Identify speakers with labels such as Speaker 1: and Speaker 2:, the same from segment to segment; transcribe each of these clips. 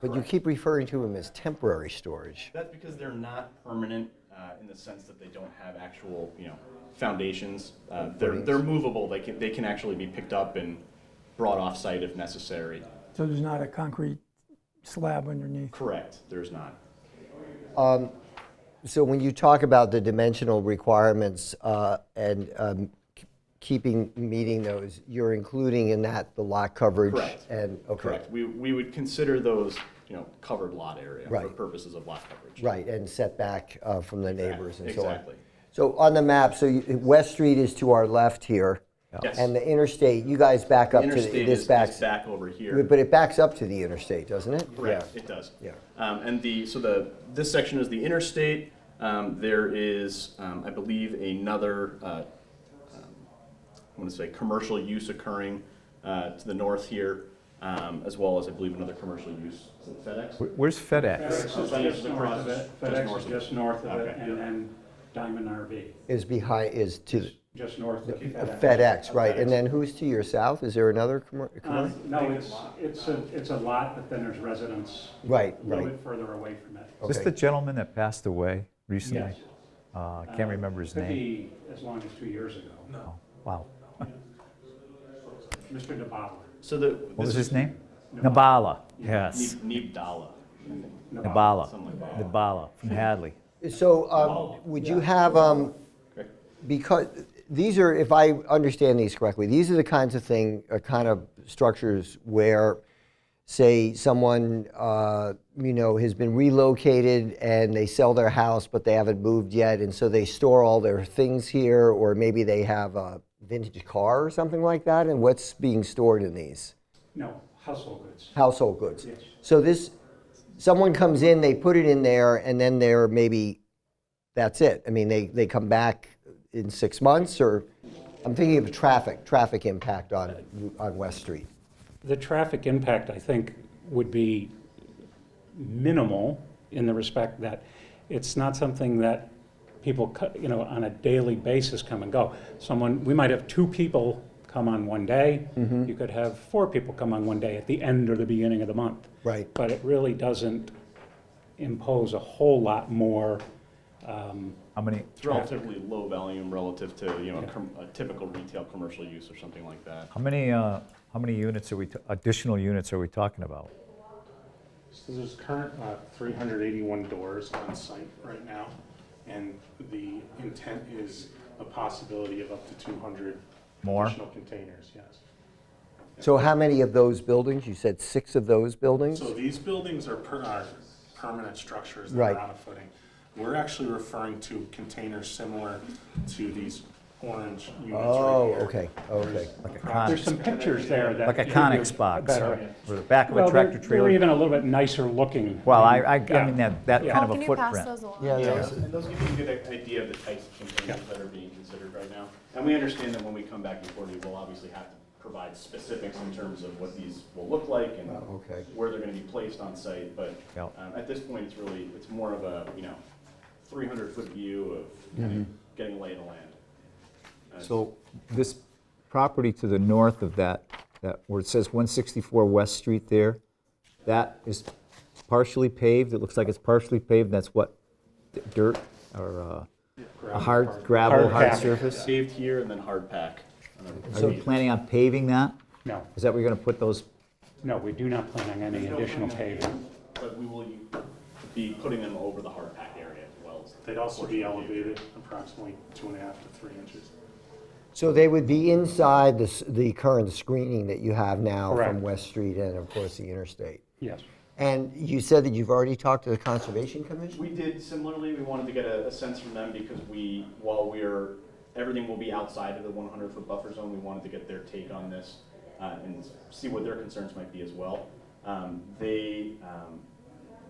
Speaker 1: But you keep referring to them as temporary storage.
Speaker 2: That's because they're not permanent uh, in the sense that they don't have actual, you know, foundations. Uh, They're, they're movable, they can, they can actually be picked up and brought off-site if necessary.
Speaker 3: So there's not a concrete slab underneath?
Speaker 2: Correct, there's not.
Speaker 1: So when you talk about the dimensional requirements uh, and um, k- keeping, meeting those, you're including in that the lot coverage?
Speaker 2: Correct.
Speaker 1: And, okay,
Speaker 2: Correct, we, we would consider those, you know, covered lot area for
Speaker 1: Right.
Speaker 2: purposes of lot coverage.
Speaker 1: right, and setback uh, from the neighbors and so on.
Speaker 2: Exactly.
Speaker 1: So on the map, so you- West Street is to our left here.
Speaker 2: Yes.
Speaker 1: And the interstate, you guys back up to, the-
Speaker 2: Interstate is
Speaker 1: this
Speaker 2: is
Speaker 1: backs,
Speaker 2: back over here.
Speaker 1: but it backs up to the interstate, doesn't it?
Speaker 2: Correct, it does.
Speaker 1: Yeah.
Speaker 2: Um, and the, so the, this section is the interstate. Um, there is, um, I believe, another, uh, um, I want to say, commercial use occurring, uh, to the north here, um, as well as, I believe, another commercial use. Is it FedEx?
Speaker 4: Where's FedEx?
Speaker 5: FedEx is just north of it, FedEx
Speaker 2: north
Speaker 5: is
Speaker 2: of it.
Speaker 5: just north of it,
Speaker 2: Okay.
Speaker 5: and then Diamond RV,
Speaker 1: Is behind, is to the-
Speaker 5: just north of FedEx.
Speaker 1: FedEx, right. And then who's to your south? Is there another commer-
Speaker 5: Uh,
Speaker 1: commercial?
Speaker 5: No, it's, it's a, it's a lot, but then there's residents.
Speaker 1: Right,
Speaker 5: A little
Speaker 1: right. Oh,
Speaker 5: bit further away from it.
Speaker 4: Is this
Speaker 1: Okay.
Speaker 4: the gentleman that passed away recently?
Speaker 5: Yes.
Speaker 4: Uh, I Can't remember his
Speaker 5: Could
Speaker 4: name.
Speaker 5: be as long as two years ago.
Speaker 4: Oh, Wow.
Speaker 5: Mr. DeBottler.
Speaker 2: So the.
Speaker 4: What was his name?
Speaker 5: Nabala.
Speaker 4: Nabala, yes.
Speaker 2: Nibdala.
Speaker 4: Nabala,
Speaker 2: Something like
Speaker 4: Nabala from Hadley.
Speaker 1: So um, would you have, um, because, these are, if I understand these correctly, these are the kinds of thing, uh, kind of structures where, say, someone, uh, you know, has been relocated and they sell their house, but they haven't moved yet, and so they store all their things here, or maybe they have a vintage car or something like that, and what's being stored in these?
Speaker 5: No, household goods.
Speaker 1: household goods.
Speaker 5: Yes.
Speaker 1: So this, someone comes in, they put it in there, and then they're maybe, that's it. I mean, they, they come back in six months, or, I'm thinking of traffic, traffic impact on, on West Street.
Speaker 5: The traffic impact, I think, would be minimal in the respect that it's not something that people, co- you know, on a daily basis come and go. Someone, we might have two people come on one day.
Speaker 4: Mm-hmm.
Speaker 5: You could have four people come on one day at the end or the beginning of the month.
Speaker 1: Right.
Speaker 5: But it really doesn't impose a whole lot more.
Speaker 4: How many,
Speaker 2: It's relatively low volume relative to, you know, a com- a typical retail commercial use or something like that.
Speaker 4: how many, uh, how many units are we, t- additional units are we talking about?
Speaker 6: So there's current uh, 381 doors on site right now, and the intent is a possibility of up to 200
Speaker 4: More?
Speaker 6: additional containers, yes.
Speaker 1: So how many of those buildings? You said six of those buildings?
Speaker 6: So these buildings are per, are permanent structures that
Speaker 1: Right.
Speaker 6: are on a footing. We're actually referring to containers similar to these orange units right here.
Speaker 1: Oh, okay, okay.
Speaker 4: Like a
Speaker 5: There's
Speaker 4: Conex,
Speaker 5: some pictures there that.
Speaker 4: like a
Speaker 5: give you
Speaker 4: Conex box,
Speaker 5: better-
Speaker 4: or the back of
Speaker 5: Well,
Speaker 4: a
Speaker 5: they're-
Speaker 4: tractor
Speaker 5: They're
Speaker 4: trailer?
Speaker 5: even a little bit nicer looking.
Speaker 4: Well, I, I I
Speaker 5: Yeah.
Speaker 4: mean, that, that
Speaker 5: Yeah.
Speaker 4: kind of
Speaker 7: Can
Speaker 4: a
Speaker 7: you pass
Speaker 4: footprint.
Speaker 7: those along?
Speaker 1: Yeah,
Speaker 2: Yeah,
Speaker 1: those-
Speaker 2: and those give you a good idea of the types of containers that are being considered right now. And we understand that when we come back before you, we'll obviously have to provide specifics in terms of what these will look like and
Speaker 1: okay.
Speaker 2: where they're gonna be placed on site, but
Speaker 4: Yeah.
Speaker 2: um, at this point, it's really, it's more of a, you know, three hundred foot view of kind of getting lay of the land.
Speaker 4: So this property to the north of that, that, where it says 164 West Street there, that is partially paved, it looks like it's partially paved, that's what, d- dirt or uh, a hard gravel,
Speaker 5: Hard
Speaker 4: hard
Speaker 5: pack.
Speaker 4: surface?
Speaker 2: Saved here and then hard pack. Um,
Speaker 4: Are you planning on paving that?
Speaker 5: No,
Speaker 4: Is that where you're gonna put those?
Speaker 5: no, we do not plan on any additional paving.
Speaker 2: But we will be putting them over the hard pack area as well as
Speaker 6: They'd also be elevated approximately two and a half to three inches.
Speaker 1: So they would be inside the, s- the current screening that you have now from
Speaker 5: Correct.
Speaker 1: West Street and, of course, the interstate.
Speaker 5: Yes.
Speaker 1: And you said that you've already talked to the Conservation Commission?
Speaker 2: We did similarly, we wanted to get a, a sense from them because we, while we're, everything will be outside of the one hundred foot buffer zone, we wanted to get their take on this, uh, and see what their concerns might be as well. Um, they, um,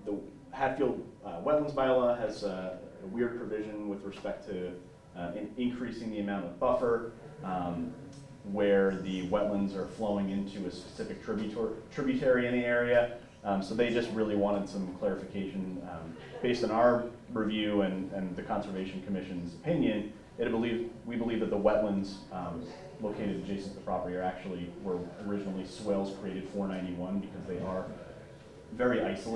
Speaker 2: the Hatfield, uh, wetlands bylaw has uh, a weird provision with respect to, uh, in- increasing the amount of buffer, um, where the wetlands are flowing into a specific tributor, tributary in the area. Um, so they just really wanted some clarification, um, based on our review and, and the Conservation Commission's opinion. It believe, we believe that the wetlands, um, located adjacent to the property are actually, were originally swales created for ninety-one because they are very isolated.